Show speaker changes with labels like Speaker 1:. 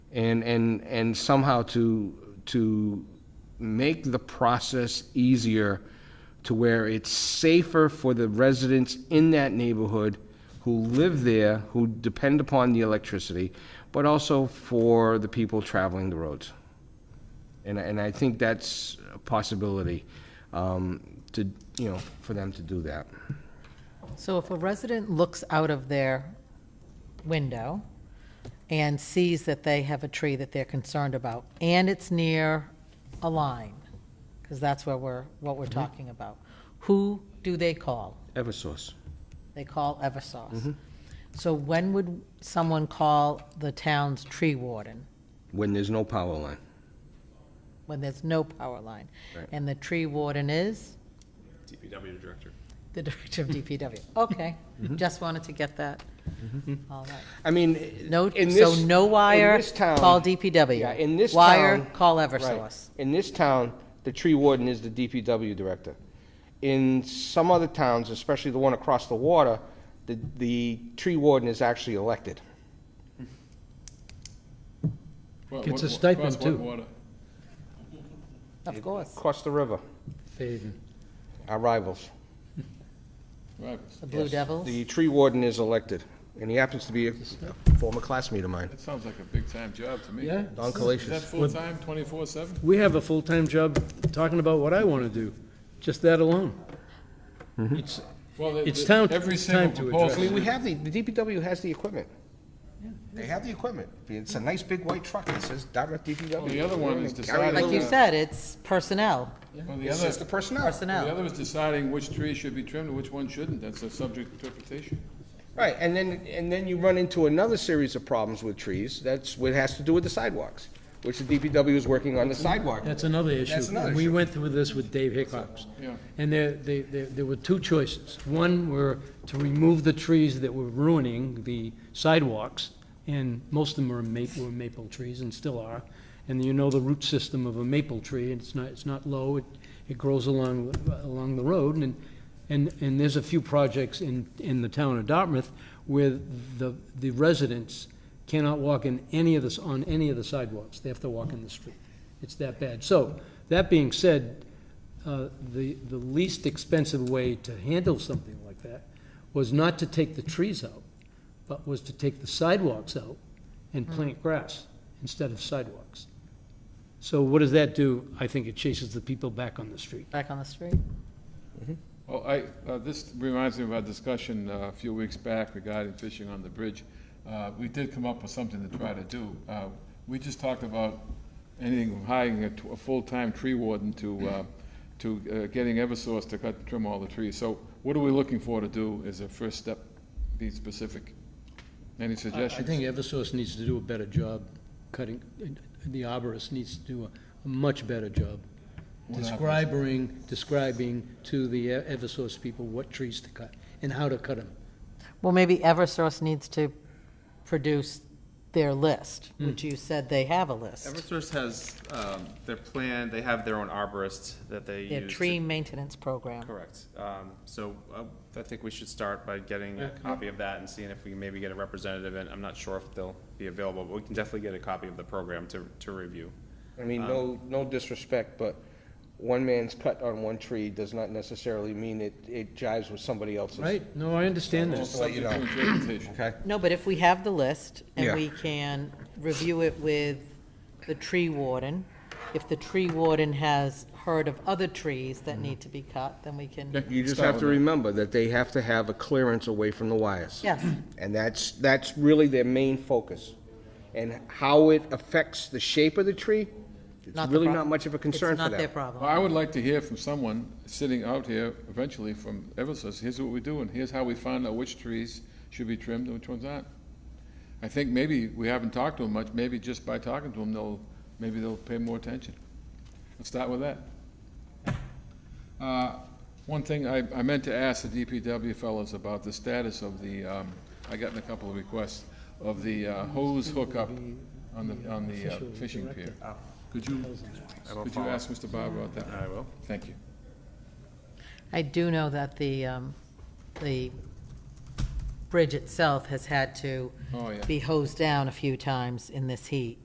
Speaker 1: and, and, and somehow to, to make the process easier to where it's safer for the residents in that neighborhood who live there, who depend upon the electricity, but also for the people traveling the roads. And, and I think that's a possibility, um, to, you know, for them to do that.
Speaker 2: So if a resident looks out of their window and sees that they have a tree that they're concerned about, and it's near a line, because that's where we're, what we're talking about, who do they call?
Speaker 1: Eversource.
Speaker 2: They call Eversource. So when would someone call the town's tree warden?
Speaker 1: when there's no power line.
Speaker 2: When there's no power line?
Speaker 1: Right.
Speaker 2: And the tree warden is?
Speaker 3: DPW director.
Speaker 2: The director of DPW. Okay, just wanted to get that. All right.
Speaker 1: I mean,
Speaker 2: No,
Speaker 1: in
Speaker 2: so
Speaker 1: this-
Speaker 2: no wire,
Speaker 1: in this town-
Speaker 2: call DPW.
Speaker 1: Yeah, in this
Speaker 2: Wire,
Speaker 1: town-
Speaker 2: call
Speaker 1: right.
Speaker 2: Eversource.
Speaker 1: In this town, the tree warden is the DPW director. In some other towns, especially the one across the water, the, the tree warden is actually elected.
Speaker 4: Gets a stipend, too.
Speaker 2: Of course,
Speaker 1: Across the river,
Speaker 4: Faden.
Speaker 1: our rivals.
Speaker 3: Right.
Speaker 2: the Blue Devils.
Speaker 1: The tree warden is elected, and he happens to be a former classmate of mine,
Speaker 3: That sounds like a big-time job to me.
Speaker 4: Yeah,
Speaker 1: Don
Speaker 3: Is that
Speaker 1: Calatius.
Speaker 3: full-time, twenty-four-seven?
Speaker 4: we have a full-time job talking about what I want to do, just that alone. It's,
Speaker 3: Well, the-
Speaker 4: It's
Speaker 3: the-
Speaker 4: time-
Speaker 3: Every
Speaker 4: it's
Speaker 3: single
Speaker 4: time to address
Speaker 1: I mean,
Speaker 3: proposal,
Speaker 1: we have the, the DPW has the equipment. They have the equipment. It's a nice big white truck that says direct DPW.
Speaker 3: Well, the other one is
Speaker 1: Carry
Speaker 3: deciding-
Speaker 2: Like you
Speaker 3: Yeah.
Speaker 2: said, it's personnel,
Speaker 3: well, the
Speaker 1: It's
Speaker 3: other,
Speaker 1: just the personnel.
Speaker 3: the
Speaker 2: personnel.
Speaker 3: other is deciding which tree should be trimmed and which one shouldn't, that's a subject interpretation.
Speaker 1: Right, and then, and then you run into another series of problems with trees, that's what has to do with the sidewalks, which the DPW is working on the sidewalk.
Speaker 4: that's another issue.
Speaker 1: That's another
Speaker 4: We
Speaker 1: issue.
Speaker 4: went through this with Dave Hickox.
Speaker 3: Yeah.
Speaker 4: And there, there, there there were two choices. One were to remove the trees that were ruining the sidewalks, and most of them were maple, were maple trees and still are. And you know the root system of a maple tree, and it's not, it's not low, it, it grows along, along the road, and, and, and there's a few projects in, in the town of Dartmouth where the, the residents cannot walk in any of this, on any of the sidewalks, they have to walk in the street. It's that bad. So, that being said, uh, the, the least expensive way to handle something like that was not to take the trees out, but was to take the sidewalks out and plant grass instead of sidewalks. So what does that do? I think it chases the people back on the street.
Speaker 2: back on the street.
Speaker 3: Well, I, uh, this reminds me of our discussion uh, a few weeks back regarding fishing on the bridge. Uh, We did come up with something to try to do. Uh, We just talked about anything from hiring a t- a full-time tree warden to, uh, to uh, getting Eversource to cut, trim all the trees. So what are we looking for to do as a first step? Be specific. Any
Speaker 4: I I
Speaker 3: suggestions?
Speaker 4: think Eversource needs to do a better job cutting, the arborist needs to do a much better job
Speaker 3: What
Speaker 4: describing, describing to the E-, Eversource people what trees to cut and how to cut them.
Speaker 2: Well, maybe Eversource needs to produce their list,
Speaker 1: Hmm.
Speaker 2: which you said they have a list.
Speaker 5: Eversource has um, their plan, they have their own arborist that they use.
Speaker 2: Their
Speaker 5: to-
Speaker 2: tree maintenance program.
Speaker 5: Correct. Um, So uh, I think we should start by getting a copy of that and seeing if we can maybe get a representative, and I'm not sure if they'll be available, but we can definitely get a copy of the program to, to review.
Speaker 1: I mean, no, no disrespect, but one man's cut on one tree does not necessarily mean it, it jives with somebody else's.
Speaker 4: Right? No, I understand that.
Speaker 1: Just to let you
Speaker 3: Subject
Speaker 1: know,
Speaker 3: to interpretation.
Speaker 1: okay?
Speaker 2: No, but if we have the list and
Speaker 1: Yeah.
Speaker 2: we can review it with the tree warden, if the tree warden has heard of other trees that
Speaker 1: Hmm.
Speaker 2: need to be cut, then we can,
Speaker 1: You just have to remember that they have to have a clearance away from the wires.
Speaker 2: yes,
Speaker 1: And that's, that's really their main focus. And how it affects the shape of the tree,
Speaker 2: Not
Speaker 1: it's
Speaker 2: the
Speaker 1: really
Speaker 2: prob-
Speaker 1: not much of a
Speaker 2: it's
Speaker 1: concern for them.
Speaker 2: not their problem.
Speaker 3: Well, I would like to hear from someone sitting out here eventually from Eversource, here's what we do, and here's how we find out which trees should be trimmed and which ones aren't. I think maybe we haven't talked to them much, maybe just by talking to them, they'll, maybe they'll pay more attention. Let's start with that. Uh, One thing, I, I meant to ask the DPW fellows about the status of the, um, I gotten a couple of requests, of the uh, hose hookup on the, on the uh, fishing pier. Could you, could you ask Mr. Barber about that?
Speaker 5: I will.
Speaker 3: Thank you.
Speaker 2: I do know that the, um, the bridge itself has had to
Speaker 3: Oh, yeah.
Speaker 2: be hosed down a few times in this heat.